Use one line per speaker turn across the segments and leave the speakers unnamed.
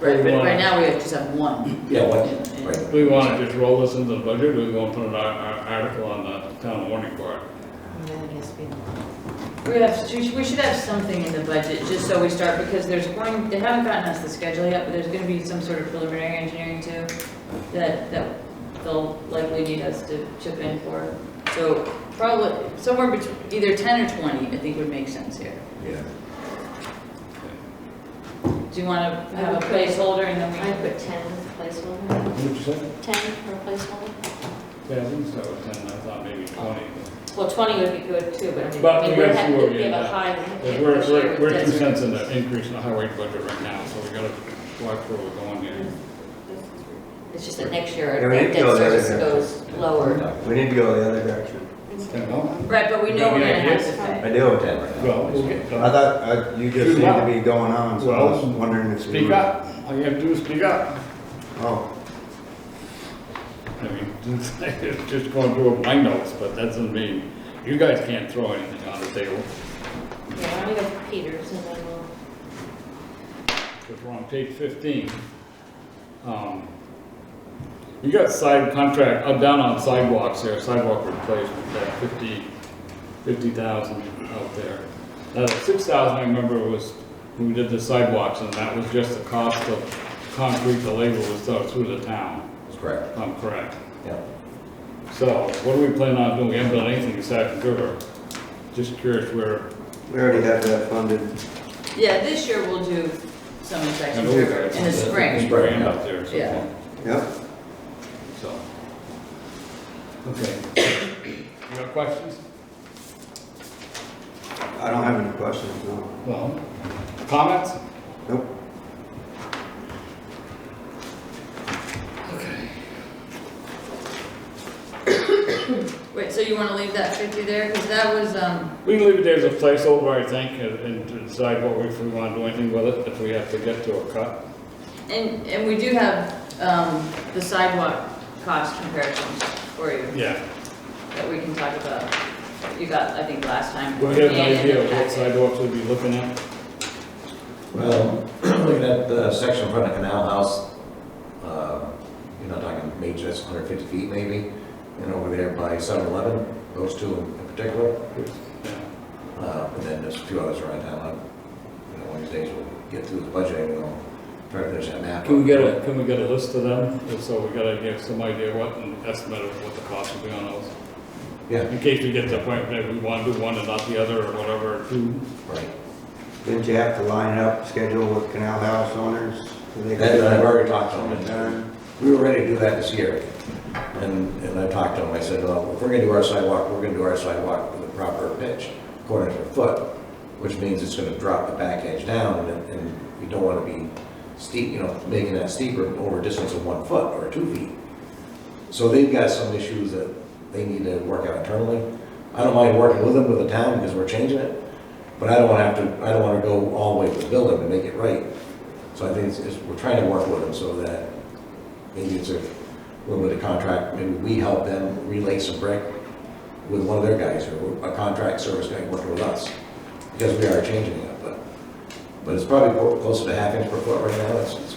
Right, but
wanna-
right now we have just have one.
Yeah, what,
And- and-
right.
We want to just roll this into the budget, or we want to put an ar- ar- article on the town warning board?
We have, we should, we should have something in the budget, just so we start, because there's going, they haven't gotten us the schedule yet, but there's gonna be some sort of preliminary engineering too, that, that they'll likely need us to chip in for. So probably, somewhere between, either ten or twenty, I think would make sense here.
yeah.
Do you wanna have a placeholder and then
I
we?
put ten as a placeholder,
What'd you say?
ten for a placeholder.
Yeah, I think so, ten, I thought maybe twenty.
Well, twenty would be good too, but I mean,
But
I mean,
we
we're
have
having
four,
to
yeah,
give a
that-
high.
Because we're, we're, we're two
That's-
cents in the increase in the highway budget right now, so we gotta watch where we're going here.
It's just that next year,
Yeah,
our
we need
debt
to go the other
service
direction.
goes lower.
We need to go the other direction.
Ten dollars?
Right, but we know we're gonna have to pay.
I do with that.
Well, we'll get,
I
uh,
thought, uh, you just
Speak
seemed to
up.
be going on, so I was
Well,
wondering if you
speak
were-
up, all you have to do is speak up.
Oh,
I mean, it's just going through my notes, but that doesn't mean, you guys can't throw anything on the table.
Yeah, I'm gonna go for Peters and then we'll.
if we're on page fifteen. um, You got side contract, I'm down on sidewalks there, sidewalk replacement, that fifty, fifty thousand out there. Now, the six thousand, I remember, was, when we did the sidewalks, and that was just the cost of concrete, the labor was done through the town,
that's correct,
if I'm correct.
yeah.
So, what do we plan on doing? We haven't done anything aside from river. Just curious where,
We already have that funded.
Yeah, this year we'll do some
I
inspection
know we've got
in the
some-
spring.
Spring up there, so.
Yeah.
Yep.
So. Okay. You got questions?
I don't have any questions, no.
Well. Comments?
Nope.
Wait, so you wanna leave that fifty there? Cause that was, um,
We can leave it there as a placeholder, I think, and- and to decide what we, if we want to do anything with it, if we have to get to a cut.
And, and we do have, um, the sidewalk cost comparisons for you
Yeah,
that we can talk about. You got, I think, last time.
we have an
And in
idea
the
of what
packet.
sidewalks we'd be looking at.
Well, looking at the section in front of Canal House, uh, you're not talking major, that's 150 feet maybe, and over there by 7-Eleven, those two in particular,
Yeah.
Uh, And then there's a few others around town, like, you know, one of these days we'll get through the budgeting and I'll, probably there's a map.
Can we get a, can we get a list of them? And So we gotta give some idea what, an estimate of what the cost will be on those.
Yeah,
In case we get to the point that we want to do one and not the other, or whatever, two.
right.
Didn't you have to line it up, schedule with Canal House owners? so they could-
That, I've already talked to them. We were ready to do that this year. And, and I talked to them, I said, well, if we're gonna do our sidewalk, we're gonna do our sidewalk with a proper pitch, quarter to a foot, which means it's gonna drop the back edge down and, and we don't wanna be steep, you know, making that steeper over a distance of one foot or two feet. So they've got some issues that they need to work out internally. I don't mind working with them with the town because we're changing it, but I don't wanna have to, I don't wanna go all the way to the building and make it right. So I think it's, it's, we're trying to work with them so that maybe it's a little bit of contract, maybe we help them relay some brick with one of their guys or a contract service guy working with us, because we are changing it, but, but it's probably clo- closer to half inch per foot right now, it's, it's,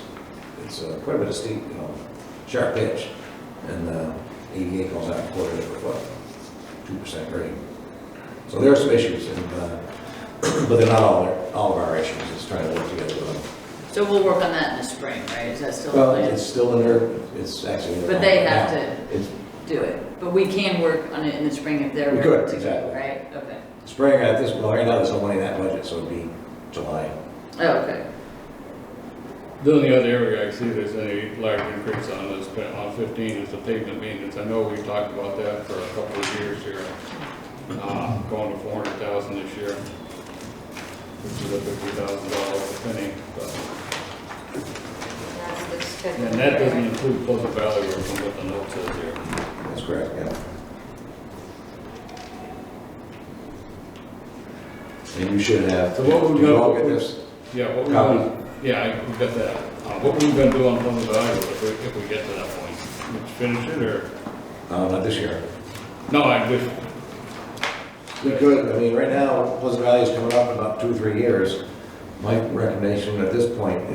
it's uh, quite a bit of steep, you know, sharp pitch, and, uh, ADA calls out a quarter inch per foot, two percent grade. So there are some issues, and, uh, but they're not all, our- all of our issues, it's trying to work together with them.
So we'll work on that in the spring, right? Is that still
Well,
the plan?
it's still in their, it's actually. in their
But they have
contract
to
now. It's
do it. But we can work on it in the spring if they're
We
ready
could,
to go,
exactly.
right? Okay.
Spring at this, well, right now, there's no money in that budget, so it'd be July.
Oh, okay.
The only other area I see there's any large increase on is, on fifteen is the pavement maintenance. I know we've talked about that for a couple of years here. Uh, going to four hundred thousand this year. Which is a fifty thousand dollar penny, but, and that doesn't include Pleasant Valley Road from what the note says here.
That's correct, yeah. And you should have.
So what we
Did you
got-
all get this?
Yeah, what we're gonna, yeah, I- we've got that. Uh, what we're gonna do on Pleasant Valley Road if we, if we get to that point? Finish it or,
No, uh, not this year.
no, I just,
We could, I mean, right now, Pleasant Valley is coming up in about two, three years. My recommendation at this point